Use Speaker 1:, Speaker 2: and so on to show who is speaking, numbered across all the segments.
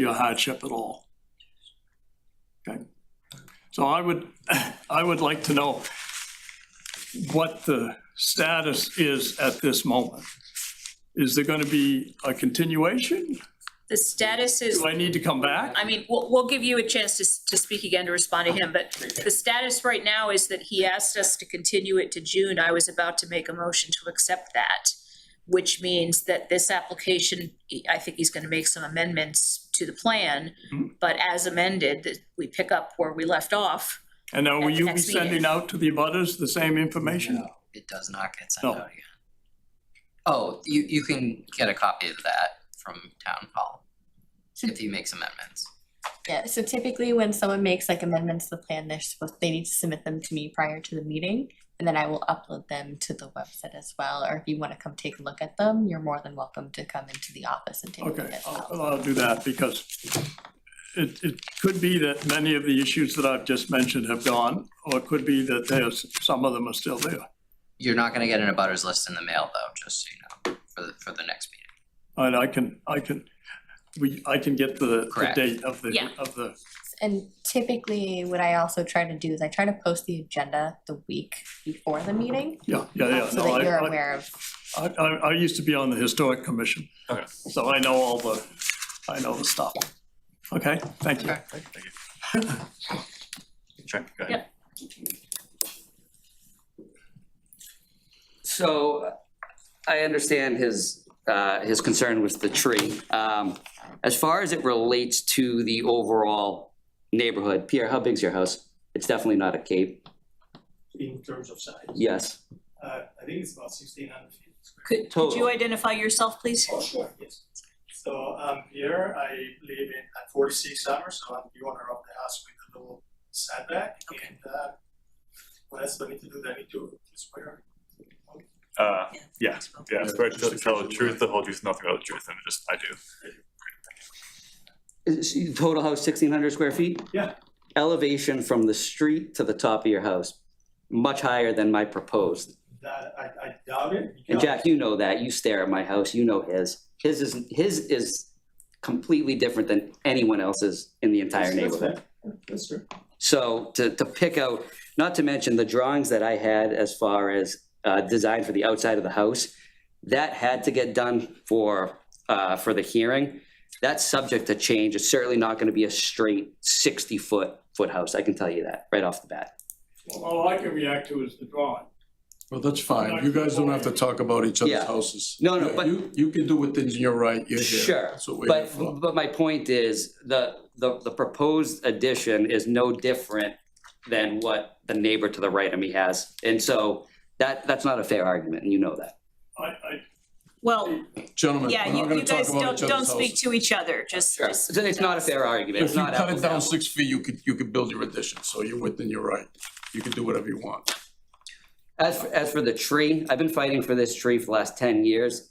Speaker 1: be a hardship at all. Okay, so I would, I would like to know what the status is at this moment. Is there gonna be a continuation?
Speaker 2: The status is,
Speaker 1: Do I need to come back?
Speaker 2: I mean, we'll, we'll give you a chance to, s- to speak again, to respond to him, but the status right now is that he asked us to continue it to June. I was about to make a motion to accept that, which means that this application, he- I think he's gonna make some amendments to the plan,
Speaker 3: Mm-hmm.
Speaker 2: but as amended, that we pick up where we left off.
Speaker 1: And now will
Speaker 2: At the
Speaker 1: you be
Speaker 2: next meeting.
Speaker 1: sending out to the abutters the same information?
Speaker 4: No, it does not get sent
Speaker 1: No.
Speaker 4: out again. Oh, you, you can get a copy of that from town hall if he makes amendments.
Speaker 5: Yeah, so typically when someone makes like amendments to the plan, they're supposed, they need to submit them to me prior to the meeting. And then I will upload them to the website as well, or if you wanna come take a look at them, you're more than welcome to come into the office and take a look
Speaker 1: Okay, oh.
Speaker 5: as
Speaker 1: I'll,
Speaker 5: well.
Speaker 1: I'll do that because it, it could be that many of the issues that I've just mentioned have gone, or it could be that there's, some of them are still there.
Speaker 4: You're not gonna get an abutters list in the mail though, just so you know, for the, for the next meeting.
Speaker 1: And I can, I can, we, I can get the, the
Speaker 4: Correct.
Speaker 1: date of the,
Speaker 2: Yeah.
Speaker 1: of the,
Speaker 5: And typically what I also try to do is I try to post the agenda the week before the meeting. um,
Speaker 1: yeah, yeah, yeah.
Speaker 5: So
Speaker 1: No,
Speaker 5: that
Speaker 1: I-
Speaker 5: you're
Speaker 1: I-
Speaker 5: aware of,
Speaker 1: I, I, I used to be on the historic commission.
Speaker 6: Okay.
Speaker 1: So I know all the, I know the stuff. Okay, thank you.
Speaker 6: Sure, go ahead.
Speaker 2: Yep.
Speaker 3: So I understand his, uh, his concern with the tree. Um, As far as it relates to the overall neighborhood, Pierre, how big's your house? It's definitely not a cave.
Speaker 7: in terms of size.
Speaker 3: Yes.
Speaker 7: Uh, I think it's about sixteen hundred feet.
Speaker 2: Could, could you identify yourself, please?
Speaker 7: Oh, sure. Yes. So I'm here, I live in at forty-six Summer, so I'm the owner of the house with the little setback. And, uh, what else do I need to do? Do I need to swear?
Speaker 6: Uh, yeah, yeah, so I just to tell the truth, the whole truth, nothing but the truth, and just, I do.
Speaker 3: Is- is Total house sixteen hundred square feet?
Speaker 7: Yeah.
Speaker 3: Elevation from the street to the top of your house, much higher than my proposed.
Speaker 7: That, I, I doubt it.
Speaker 3: And
Speaker 7: because-
Speaker 3: Jack, you know that, you stare at my house, you know his. His is, his is completely different than anyone else's in the entire
Speaker 7: That's- that's
Speaker 3: neighborhood.
Speaker 7: fair. That's true.
Speaker 3: So to, to pick out, not to mention the drawings that I had as far as uh, design for the outside of the house, that had to get done for, uh, for the hearing. That's subject to change. It's certainly not going to be a straight 60-foot, foot house. I can tell you that right off the bat.
Speaker 1: All I can react to is the drawing.
Speaker 8: Well, that's fine. You guys don't have to talk about each other's
Speaker 3: Yeah.
Speaker 8: houses.
Speaker 3: No, no,
Speaker 8: You-
Speaker 3: but-
Speaker 8: You, you can do what things in your right, you're here.
Speaker 3: Sure,
Speaker 8: That's what we're here
Speaker 3: but,
Speaker 8: for.
Speaker 3: but my point is, the, the, the proposed addition is no different than what the neighbor to the right of me has. And so that, that's not a fair argument, and you know that.
Speaker 1: I, I,
Speaker 2: Well,
Speaker 8: Gentlemen,
Speaker 2: yeah,
Speaker 8: we're not
Speaker 2: you,
Speaker 8: gonna
Speaker 2: you
Speaker 8: talk
Speaker 2: guys
Speaker 8: about
Speaker 2: don't,
Speaker 8: each
Speaker 2: don't
Speaker 8: other's
Speaker 2: speak
Speaker 8: houses.
Speaker 2: to each other, just, just.
Speaker 3: It's it's not a fair argument,
Speaker 8: If
Speaker 3: it's
Speaker 8: you
Speaker 3: not
Speaker 8: cut it
Speaker 3: apples to
Speaker 8: down
Speaker 3: apples.
Speaker 8: six feet, you could, you could build your addition, so you're within your right. You can do whatever you want.
Speaker 3: As, for- as for the tree, I've been fighting for this tree for the last ten years.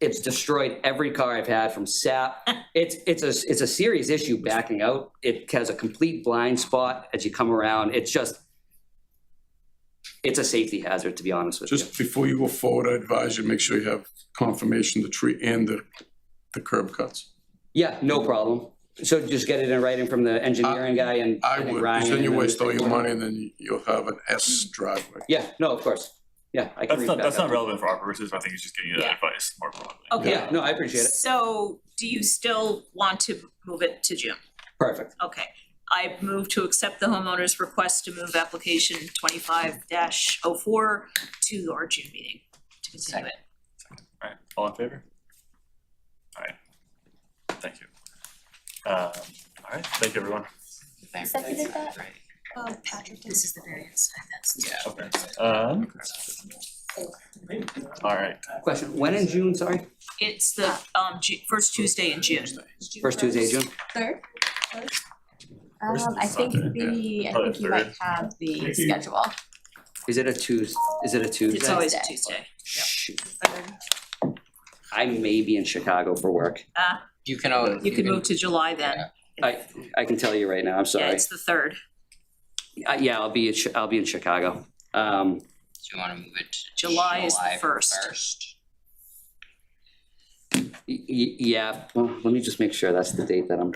Speaker 3: It's destroyed every car I've had from sap. It's, it's a, it's a serious issue backing out. It has a complete blind spot as you come around. It's just, it's a safety hazard, to be honest with you.
Speaker 8: Just before you go forward, I advise you, make sure you have confirmation, the tree and the, the curb cuts.
Speaker 3: Yeah, no problem. So just get it in writing from the engineering guy and
Speaker 8: I
Speaker 3: and
Speaker 8: would,
Speaker 3: Ryan
Speaker 8: because then you
Speaker 3: and
Speaker 8: waste all your money and then you'll have an S driveway.
Speaker 3: Yeah, no, of course. Yeah, I
Speaker 6: That's
Speaker 3: can read
Speaker 6: not,
Speaker 3: back
Speaker 6: that's
Speaker 3: up.
Speaker 6: not relevant for our purposes, I think he's just giving you that
Speaker 2: Yeah.
Speaker 6: advice more broadly.
Speaker 2: Okay.
Speaker 3: Yeah, no, I appreciate it.
Speaker 2: So do you still want to move it to June?
Speaker 3: Perfect.
Speaker 2: Okay, I move to accept the homeowner's request to move application twenty-five 4 to our June meeting. To continue it.
Speaker 6: Alright, all in favor? Alright, thank you. Um, alright, thank you, everyone.
Speaker 4: Thank-
Speaker 5: Seconded that?
Speaker 4: Right.
Speaker 2: Oh, Patrick, this is the variance, that's.
Speaker 4: Yeah.
Speaker 6: Okay, um, alright,
Speaker 3: Question, when in June, sorry?
Speaker 2: It's the, um, Ju- first Tuesday in June.
Speaker 3: First Tuesday, June?
Speaker 5: Third? Third?
Speaker 6: First
Speaker 5: Um,
Speaker 6: is
Speaker 5: I think
Speaker 6: Sunday,
Speaker 5: the, I
Speaker 1: Oh,
Speaker 6: Probably
Speaker 5: think you might
Speaker 6: third.
Speaker 5: have the
Speaker 7: Maybe.
Speaker 5: schedule.
Speaker 3: Is it a Tues, is it a
Speaker 2: It's
Speaker 3: Tuesday?
Speaker 2: always a Tuesday.
Speaker 3: Shoot,
Speaker 5: Third.
Speaker 3: I may be in Chicago for work.
Speaker 2: Ah,
Speaker 4: You can always.
Speaker 2: you can move to July then.
Speaker 3: I, I can tell you right now, I'm
Speaker 2: Yeah,
Speaker 3: sorry.
Speaker 2: it's the third.
Speaker 3: Uh, yeah, I'll be, in Chi- I'll be in Chicago. Um,
Speaker 4: Do you wanna move it to
Speaker 2: July is the
Speaker 4: July
Speaker 2: first.
Speaker 4: first?
Speaker 3: y- y- yeah, well, let me just make sure that's the date that I'm